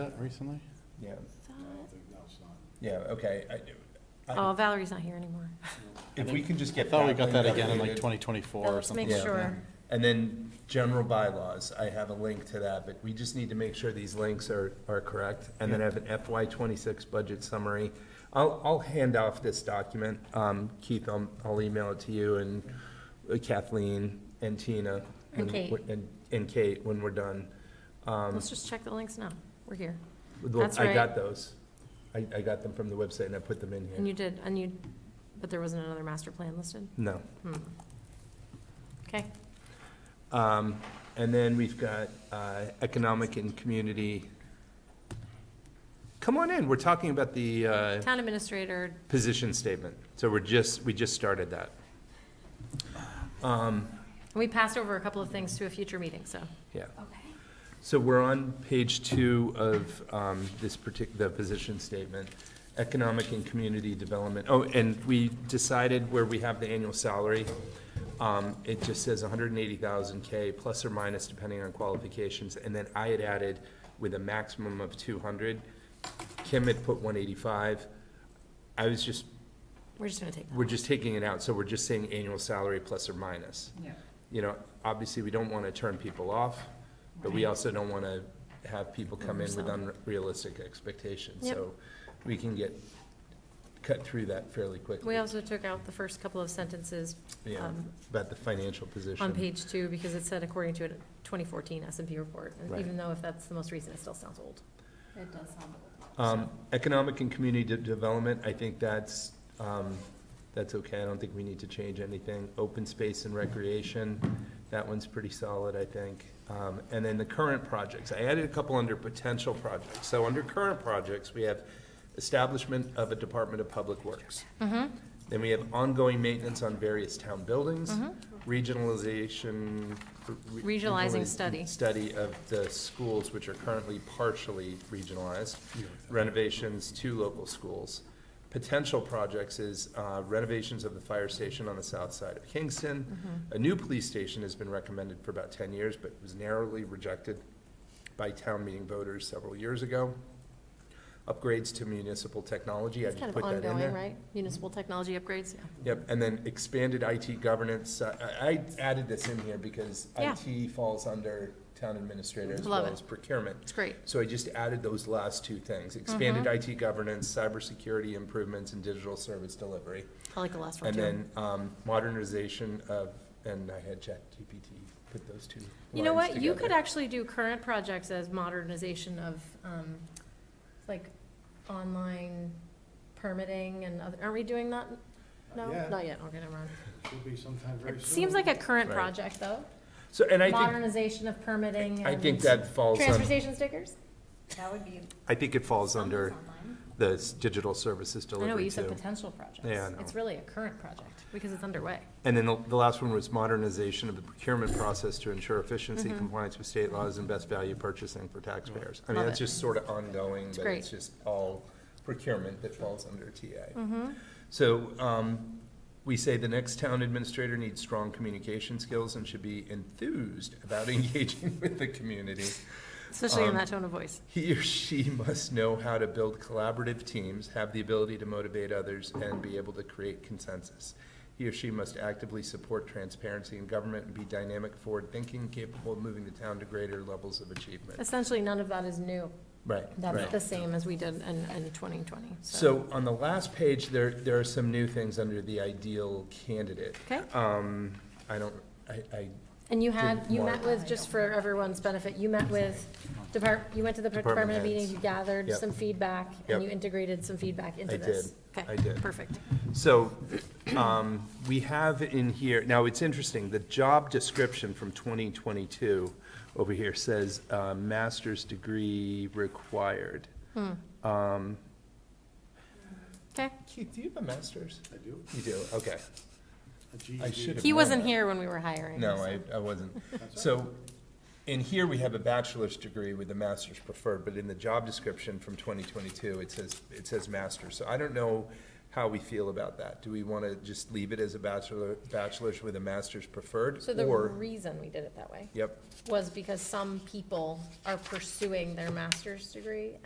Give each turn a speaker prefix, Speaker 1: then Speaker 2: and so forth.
Speaker 1: that recently?
Speaker 2: Yeah,
Speaker 3: thought-
Speaker 2: yeah, okay. I- I-
Speaker 3: Oh, Valerie's not here anymore.
Speaker 2: If we can just
Speaker 1: I
Speaker 2: get.
Speaker 1: thought we got that again in like
Speaker 2: updated.
Speaker 1: 2024
Speaker 3: Now
Speaker 1: or
Speaker 3: let's
Speaker 1: something.
Speaker 3: make
Speaker 1: like that.
Speaker 3: sure.
Speaker 2: And then general bylaws, I have a link to that, but we just need to make sure these links are, are correct. And then I have an FY twenty-six budget summary. I'll, I'll hand off this document. Um, Keith, I'll, I'll email it to you and uh, Kathleen and Tina. when-
Speaker 3: And Kate.
Speaker 2: And, and Kate when we're done. Um,
Speaker 3: Let's just check the links now. We're here.
Speaker 2: look,
Speaker 3: that's
Speaker 2: I got
Speaker 3: right.
Speaker 2: those. I, I got them from the website and I put them in
Speaker 3: And
Speaker 2: here.
Speaker 3: you did, and you, but there wasn't another master plan listed?
Speaker 2: No.
Speaker 3: Hmm. Okay,
Speaker 2: Um, And then we've got uh, economic and community. Come on in, we're talking about the uh,
Speaker 3: town administrator,
Speaker 2: position statement. So we're just, we just started that. Um,
Speaker 3: we passed over a couple of things to a future meeting, so.
Speaker 2: Yeah,
Speaker 3: Okay.
Speaker 2: so we're on page two of um, this particular, the position statement, economic and community development. Oh, and we decided where we have the annual salary. Um, it just says hundred and eighty thousand K, plus or minus depending on qualifications, and then I had added with a maximum of two hundred. Kim had put one eighty-five. I was just,
Speaker 3: We're just gonna take that.
Speaker 2: we're just taking it out, so we're just saying annual salary plus or minus.
Speaker 4: Yeah.
Speaker 2: You know, obviously, we don't wanna turn people off, but we also don't wanna have people come in with
Speaker 3: Oversell.
Speaker 2: unrealistic expectations,
Speaker 3: Yep.
Speaker 2: so we can get, cut through that fairly quickly.
Speaker 3: We also took out the first couple of sentences
Speaker 2: Yeah,
Speaker 3: um,
Speaker 2: about the financial position.
Speaker 3: on page two because it said according to a 2014 S and P report. And
Speaker 2: Right.
Speaker 3: Even though if that's the most recent, it still sounds old.
Speaker 4: It does sound.
Speaker 2: Um, economic and community de- development, I think that's, um, that's okay, I don't think we need to change anything. Open space and recreation, that one's pretty solid, I think. Um, and then the current projects, I added a couple under potential projects. So under current projects, we have establishment of a Department of Public Works. Then we have ongoing maintenance on various town buildings, regionalization. re-
Speaker 3: Mm-hmm. Regionalizing
Speaker 2: regionaliz-
Speaker 3: study.
Speaker 2: Study of the schools which are currently partially regionalized, renovations to local schools. Potential projects is uh, renovations of the fire station on the south side of Kingston.
Speaker 3: Mm-hmm.
Speaker 2: A new police station has been recommended for about ten years, but was narrowly rejected by town meeting voters several years ago. Upgrades to municipal technology, I
Speaker 3: It's
Speaker 2: just
Speaker 3: kind
Speaker 2: put
Speaker 3: of
Speaker 2: that in there.
Speaker 3: ongoing, right? Municipal technology upgrades, yeah.
Speaker 2: Yep, and then expanded IT governance. I- I, I added this in here because
Speaker 3: Yeah.
Speaker 2: IT falls under town administrator as
Speaker 3: Love
Speaker 2: well
Speaker 3: it.
Speaker 2: as procurement.
Speaker 3: It's great.
Speaker 2: So I just added those last two things, expanded
Speaker 3: Mm-hmm.
Speaker 2: IT governance, cybersecurity improvements, and digital service delivery.
Speaker 3: I like the last one
Speaker 2: And
Speaker 3: too.
Speaker 2: then um, modernization of, and I had ChatGPT put those two
Speaker 3: You know
Speaker 2: lines
Speaker 3: what, you could
Speaker 2: together.
Speaker 3: actually do current projects as modernization of, um, like, online permitting and other, aren't we doing that? No,
Speaker 5: Not yet.
Speaker 3: not yet, okay, never mind.
Speaker 5: Should be sometime very
Speaker 3: It
Speaker 5: soon.
Speaker 3: seems like a current
Speaker 2: Right.
Speaker 3: project, though.
Speaker 2: So, and I
Speaker 3: Modernization of permitting
Speaker 2: think,
Speaker 3: and.
Speaker 2: I think that falls
Speaker 3: Transfer
Speaker 2: on,
Speaker 3: station stickers?
Speaker 4: That would be.
Speaker 2: I think it falls under
Speaker 4: Online.
Speaker 2: the s- digital services
Speaker 3: I know, but
Speaker 2: delivery
Speaker 3: you said
Speaker 2: too.
Speaker 3: potential projects.
Speaker 2: Yeah, I know.
Speaker 3: It's really a current project, because it's underway.
Speaker 2: And then the the last one was modernization of the procurement process to ensure efficiency,
Speaker 3: Mm-hmm.
Speaker 2: compliance with state laws, and best value purchasing for taxpayers. I mean,
Speaker 3: Love
Speaker 2: that's
Speaker 3: it.
Speaker 2: just sort of ongoing, but it's
Speaker 3: great.
Speaker 2: just all procurement that falls under TA. So um, we say the next town administrator needs strong communication skills and should be enthused about engaging with the community.
Speaker 3: Especially in
Speaker 2: Um,
Speaker 3: that tone of voice.
Speaker 2: He or she must know how to build collaborative teams, have the ability to motivate others, and be able to create consensus. He or she must actively support transparency in government and be dynamic, forward-thinking, capable of moving the town to greater levels of achievement.
Speaker 3: Um, Essentially, none of that is new.
Speaker 2: Right,
Speaker 3: That's the same as we did in, in twenty twenty,
Speaker 2: So on the last page, there, there are some new things under the ideal candidate.
Speaker 3: Okay.
Speaker 2: Um, I don't, I, I
Speaker 3: And you had,
Speaker 2: Did
Speaker 3: you
Speaker 2: more.
Speaker 3: met with, just for everyone's benefit, you met with depart, you went to the
Speaker 2: Department
Speaker 3: department of
Speaker 2: heads.
Speaker 3: meetings, you gathered
Speaker 2: Yep.
Speaker 3: some feedback,
Speaker 2: Yep.
Speaker 3: and you integrated some feedback into
Speaker 2: I
Speaker 3: this.
Speaker 2: did.
Speaker 3: Okay,
Speaker 2: I did.
Speaker 3: Perfect.
Speaker 2: So, um, we have in here, now it's interesting, the job description from 2022 over here says, uh, master's degree required. Um,
Speaker 3: Okay.
Speaker 2: Keith, do you have a master's?
Speaker 5: I do.
Speaker 2: You do, okay.
Speaker 5: A GED.
Speaker 2: I should have.
Speaker 3: He
Speaker 2: known
Speaker 3: wasn't
Speaker 2: that.
Speaker 3: here when we were hiring.
Speaker 2: No,
Speaker 3: so-
Speaker 2: I, I wasn't. So, in here, we have a bachelor's degree with a master's preferred, but in the job description from 2022, it says, it says master's. So I don't know how we feel about that. Do we want to just leave it as a bachelor, bachelor's with a master's preferred?
Speaker 3: So the
Speaker 2: Or,
Speaker 3: reason we did it that way
Speaker 2: yep,
Speaker 3: was because some people are pursuing their master's degree